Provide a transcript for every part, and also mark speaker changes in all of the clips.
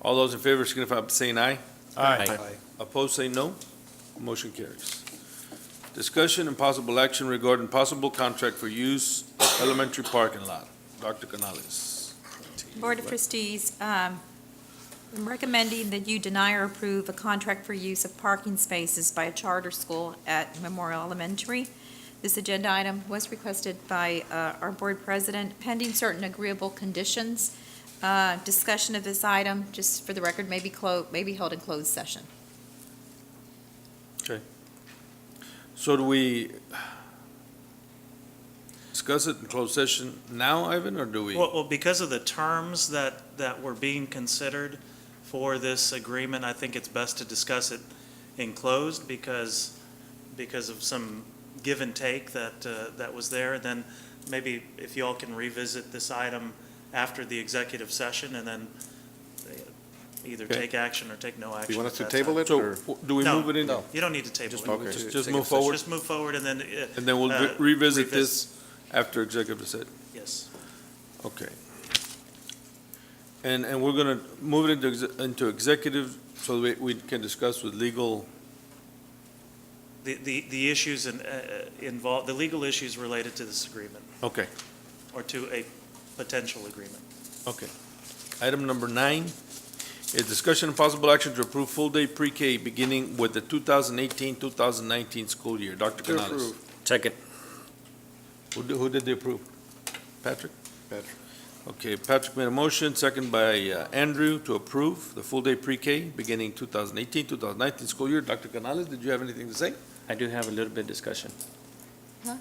Speaker 1: All those in favor signify by saying aye.
Speaker 2: Aye.
Speaker 1: Opposed, say no. Motion carries. Discussion and possible action regarding possible contract for use of elementary parking lot. Dr. Canales.
Speaker 3: Board of Trustees, um, I'm recommending that you deny or approve a contract for use of parking spaces by a charter school at Memorial Elementary. This agenda item was requested by uh, our board president pending certain agreeable conditions. Uh, Discussion of this item, just for the record, may be clo, may be held in closed session.
Speaker 1: So do we discuss it in closed session now, Ivan, or do we?
Speaker 2: Well, well, because of the terms that, that were being considered for this agreement, I think it's best to discuss it in closed because, because of some give and take that, uh, that was there. And Then maybe if you all can revisit this item after the executive session and then uh, either
Speaker 1: Okay.
Speaker 2: take action or take no action.
Speaker 4: You want us
Speaker 2: at
Speaker 4: to
Speaker 2: that
Speaker 4: table
Speaker 2: time.
Speaker 4: it,
Speaker 1: So
Speaker 4: or?
Speaker 1: w- do we
Speaker 2: No.
Speaker 1: move it in?
Speaker 4: No.
Speaker 2: You don't need to table it.
Speaker 4: Okay.
Speaker 1: Just- Just
Speaker 4: Executive
Speaker 1: move
Speaker 4: session.
Speaker 1: forward,
Speaker 2: Just move forward and then, uh,
Speaker 1: and then we'll
Speaker 2: uh,
Speaker 1: re- revisit
Speaker 2: revis-
Speaker 1: this after executive session.
Speaker 2: yes.
Speaker 1: Okay. And, and we're gonna move it into, exe- into executive, so we, we can discuss with legal,
Speaker 2: The, the, the issues in- uh, involved, the legal issues related to this agreement.
Speaker 1: okay,
Speaker 2: or to a potential agreement.
Speaker 1: okay. Item number nine is discussion and possible action to approve full-day pre-K beginning with the 2018-2019 school year.
Speaker 4: To
Speaker 1: Dr. Canales.
Speaker 4: approve.
Speaker 5: Second.
Speaker 1: Who, did- who did they approve? Patrick?
Speaker 4: Patrick.
Speaker 1: Okay, Patrick made a motion, second by uh, Andrew, to approve the full-day pre-K beginning 2018-2019 school year. Dr. Canales, did you have anything to say?
Speaker 5: I do have a little bit of discussion.
Speaker 3: Huh?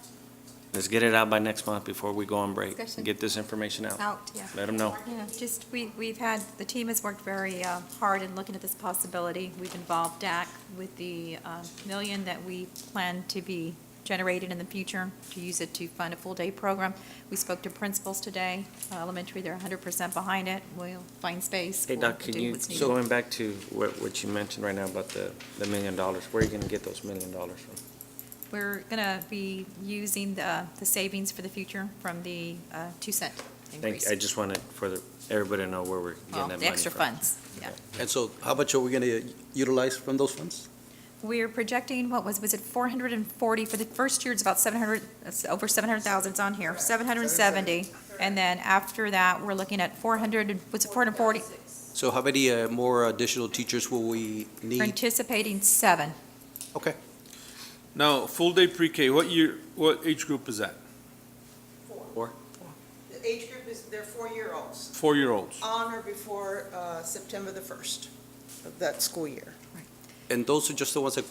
Speaker 5: Let's get it out by next month before we go on break.
Speaker 3: Discussion.
Speaker 5: Get this information out.
Speaker 3: Out, yeah.
Speaker 5: Let them know.
Speaker 3: Yeah, just, we, we've had, the team has worked very uh, hard in looking at this possibility. We've involved DAC with the uh, million that we plan to be generated in the future to use it to fund a full-day program. We spoke to principals today, uh, elementary, they're hundred percent behind it. We'll find space.
Speaker 5: Hey,
Speaker 3: We'll
Speaker 5: Doc, can
Speaker 3: do
Speaker 5: you,
Speaker 3: what's needed.
Speaker 5: going back to what, what you mentioned right now about the, the million dollars, where are you gonna get those million dollars from?
Speaker 3: We're gonna be using the, the savings for the future from the uh, two cent
Speaker 5: Thank,
Speaker 3: increase.
Speaker 5: I just wanted for the, everybody to know where we're getting that
Speaker 3: Well,
Speaker 5: money from.
Speaker 3: The extra funds, yeah.
Speaker 6: And so how much are we going to utilize from those funds?
Speaker 3: We're projecting, what was, was it 440, for the first year, it's about 700, it's over 700,000, it's on here, 770. And then after that, we're looking at 400, and- what's it, 440?
Speaker 6: So how many uh, more additional teachers will we
Speaker 3: We're
Speaker 6: need?
Speaker 3: anticipating seven.
Speaker 6: Okay,
Speaker 1: Now, full-day pre-K, what year, what age group is that?
Speaker 5: Four.
Speaker 7: The age group is, they're four-year-olds,
Speaker 1: Four-year-olds.
Speaker 7: on or before uh, September the 1st of that school year.
Speaker 6: and those are just the ones that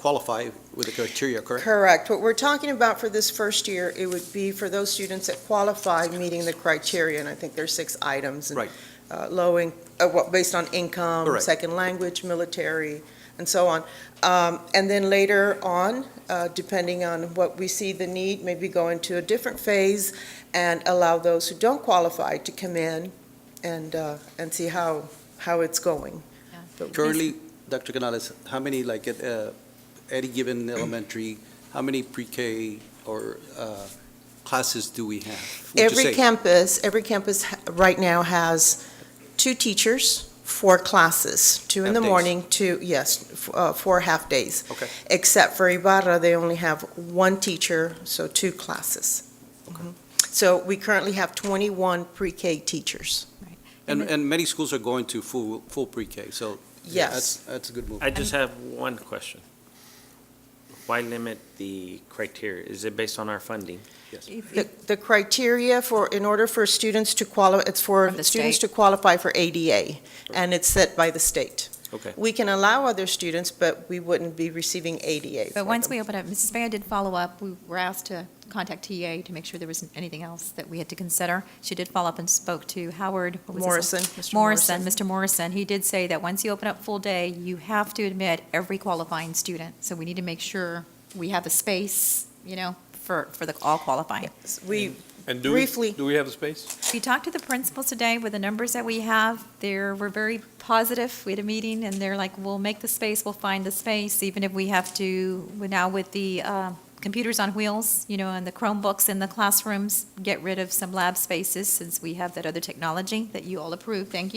Speaker 6: qualify with the criteria, correct?
Speaker 7: Correct. What we're talking about for this first year, it would be for those students that qualify meeting the criteria, and I think there's six items. and,
Speaker 6: Right.
Speaker 7: uh, Low, in- uh, what, based on income.
Speaker 6: Correct.
Speaker 7: Second language, military, and so on. Um, And then later on, uh, depending on what we see the need, maybe go into a different phase and allow those who don't qualify to come in and, uh, and see how, how it's going.
Speaker 3: Yeah.
Speaker 7: But we-
Speaker 6: Currently, Dr. Canales, how many, like, at uh, any given elementary, how many pre-K or uh, classes do we have? Would you
Speaker 7: Every
Speaker 6: say?
Speaker 7: campus, every campus ha- right now has two teachers, four classes, two in the
Speaker 6: Half days.
Speaker 7: morning, two, yes, f- uh, four half-days.
Speaker 6: Okay.
Speaker 7: Except for Ibarra, they only have one teacher, so two classes. Mhm. So we currently have 21 pre-K teachers.
Speaker 6: And, and many schools are going to full, full pre-K, so. yeah, that's-
Speaker 7: Yes.
Speaker 6: That's a good move.
Speaker 5: I just
Speaker 3: Um,
Speaker 5: have one question. Why limit the criteria? Is it based on our funding?
Speaker 3: If-
Speaker 7: The
Speaker 3: if-
Speaker 7: the criteria for, in order for students to qualify, it's for
Speaker 3: From the
Speaker 7: students to
Speaker 3: state.
Speaker 7: qualify for ADA, and it's set by the state.
Speaker 5: Okay.
Speaker 7: We can allow other students, but we wouldn't be receiving ADA for
Speaker 3: But once
Speaker 7: them.
Speaker 3: we open up, Mrs. Van did follow up, we were asked to contact TA to make sure there wasn't anything else that we had to consider. She did follow up and spoke to Howard. what was his-
Speaker 7: Morrison, Mr.
Speaker 3: Morrison, Mr. Morrison, he did say that once you open up full day, you have to admit every qualifying student. So we need to make sure we have a space, you know, for, for the all qualifying.
Speaker 7: We,
Speaker 1: And do we,
Speaker 7: Briefly.
Speaker 1: do we have the space?
Speaker 3: We talked to the principals today with the numbers that we have. They're, we're very positive. We had a meeting and they're like, we'll make the space, we'll find the space, even if we have to, we're now with the uh, computers on wheels, you know, and the Chromebooks in the classrooms, get rid of some lab spaces since we have that other technology that you all approved. Thank you.